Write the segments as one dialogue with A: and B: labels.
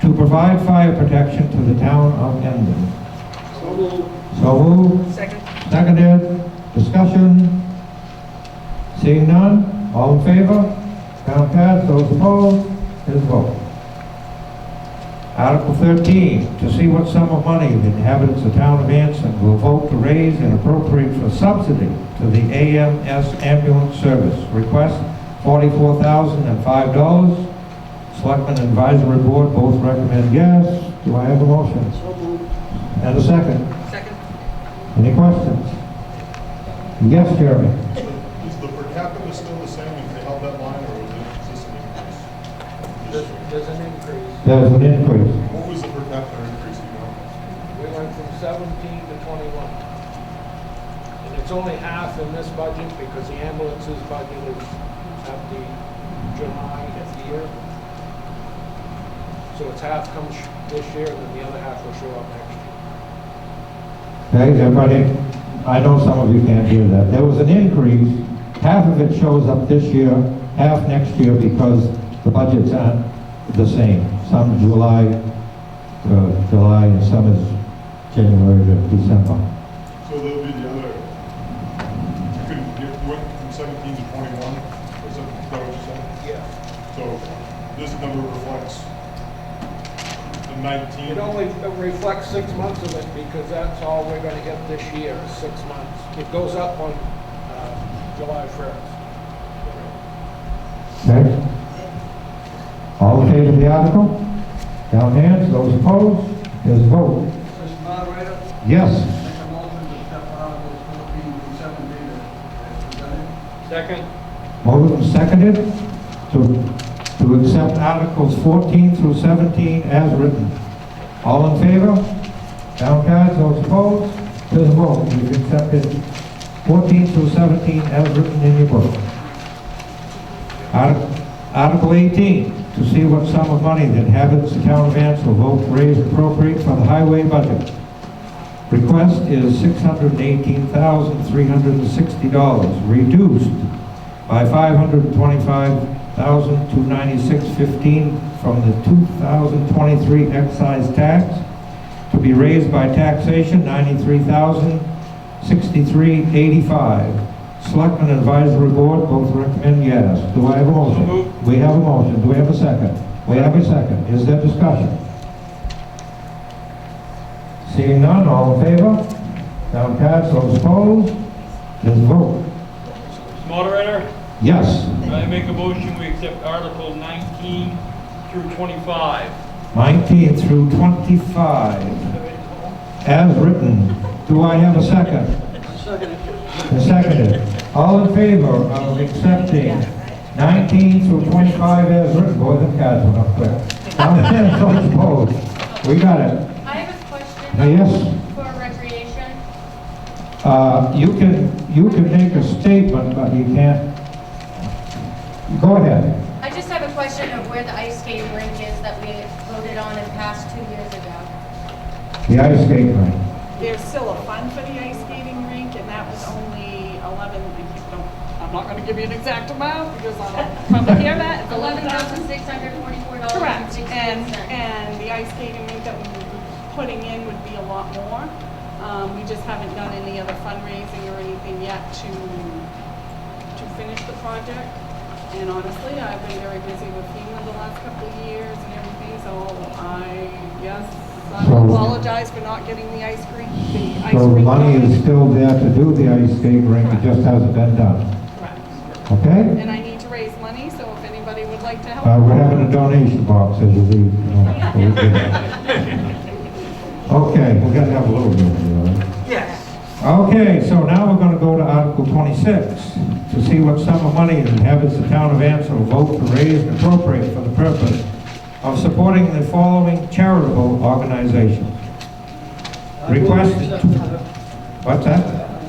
A: to provide fire protection to the town of Hendon.
B: So moved.
A: So moved,
C: Second.
A: seconded, discussion. Seeing none, all in favor? Count passed, those opposed, is vote. Article 13, to see what sum of money the inhabitants of town of Anson will vote to raise and appropriate for subsidy to the AMS ambulance service. Request $44,005. Selectmen Advisory Board both recommend yes. Do I have a motion?
B: So moved.
A: And a second?
C: Second.
A: Any questions? Yes, Jeremy?
D: Is the per capita still the same if they held that line, or was it just an increase?
B: There's,
D: Just-
B: there's an increase.
A: There's an increase.
D: What was the per capita increase, you know?
B: We went from seventeen to twenty-one. And it's only half in this budget because the ambulances budget is at the July of the year. So it's half comes this year and then the other half will show up next year.
A: Okay, everybody, I know some of you can't hear that. There was an increase. Half of it shows up this year, half next year because the budgets aren't the same. Some July, uh, July, and some is January to December.
D: So there'll be the other, you could, you went from seventeen to twenty-one, or something, is that what you said?
B: Yeah.
D: So this number reflects the nineteen.
B: It only reflects six months of it because that's all we're gonna get this year, is six months. It goes up on, uh, July first.
A: Okay? All in favor of the article? Down hands, those opposed, there's a vote.
E: Mr. Moderator,
A: Yes.
E: make a motion to accept Articles 14 and 17 as presented.
B: Second.
A: Moved and seconded to, to accept Articles 14 through 17 as written. All in favor? Down cards, those opposed? There's a vote, you've accepted 14 through 17 as written in your book. Artic- Article 18, to see what sum of money that inhabitants of town of Anson will vote to raise appropriate for the highway budget. Request is $618,360, reduced by five hundred twenty-five thousand two ninety-six fifteen from the two thousand twenty-three excise tax to be raised by taxation ninety-three thousand sixty-three eighty-five. Selectmen Advisory Board both recommend yes. Do I have a motion? We have a motion. Do we have a second? We have a second. Is there discussion? Seeing none, all in favor? Down cards, those opposed? There's a vote.
F: Moderator,
A: Yes.
F: I make a motion, we accept Article 19 through 25.
A: 19 through 25, as written. Do I have a second? A Seconded. All in favor of accepting 19 through 25 as written? Boy, them guys went up quick. Now, then, those opposed? We got it.
G: I have a question.
A: Uh, yes.
G: For recreation.
A: Uh, You can, you can make a statement, but you can't. Go ahead.
G: I just have a question of where the ice skate rink is that we voted on and passed two years ago.
A: The ice skate rink.
H: There's still a fund for the ice skating rink, and that was only 11, I keep don't- I'm not going to give you an exact amount because I don't want to hear that. It's
G: Eleven thousand
H: 11,000.
G: six hundred forty-four dollars and
H: Correct. And,
G: sixty-one cents.
H: and the ice skating rink that we were putting in would be a lot more. Um, We just haven't done any other fundraising or anything yet to, to finish the project. And honestly, I've been very busy with FEMA the last couple of years and everything, so I, yes, I
A: So-
H: apologize for not getting the ice rink, the ice
A: So the
H: rink
A: money is
H: going.
A: still there to do the ice skate rink, it just hasn't been done. Okay?
H: And I need to raise money, so if anybody would like to help.
A: Uh, we're having a donation box as you leave. you know, so we can- Okay, we're gonna have a little bit of it, all right? Okay, so now we're gonna go to Article twenty-six, to see what sum of money the inhabitants of town of Anson will vote to raise and appropriate for the purpose of supporting the following charitable organizations. Request, what's that?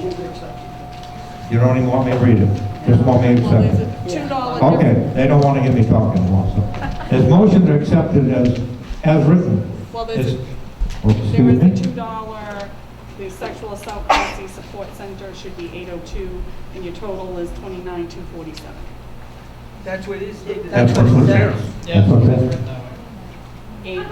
A: You don't even want me to read it, just want me to
H: Well,
A: accept
H: there's
A: it.
H: a two dollar difference.
A: Okay, they don't want to hear me talking anymore, so. There's motion to accept it as, as written.
H: Well, there's,
A: Is-
H: a-
A: oh,
H: there was the
A: Excuse
H: two
A: me?
H: dollar, the sexual assault policy support center should be eight oh two, and your total is twenty-nine, two forty-seven.
A: That's what's there. That's what's there.
H: oh
F: Yes.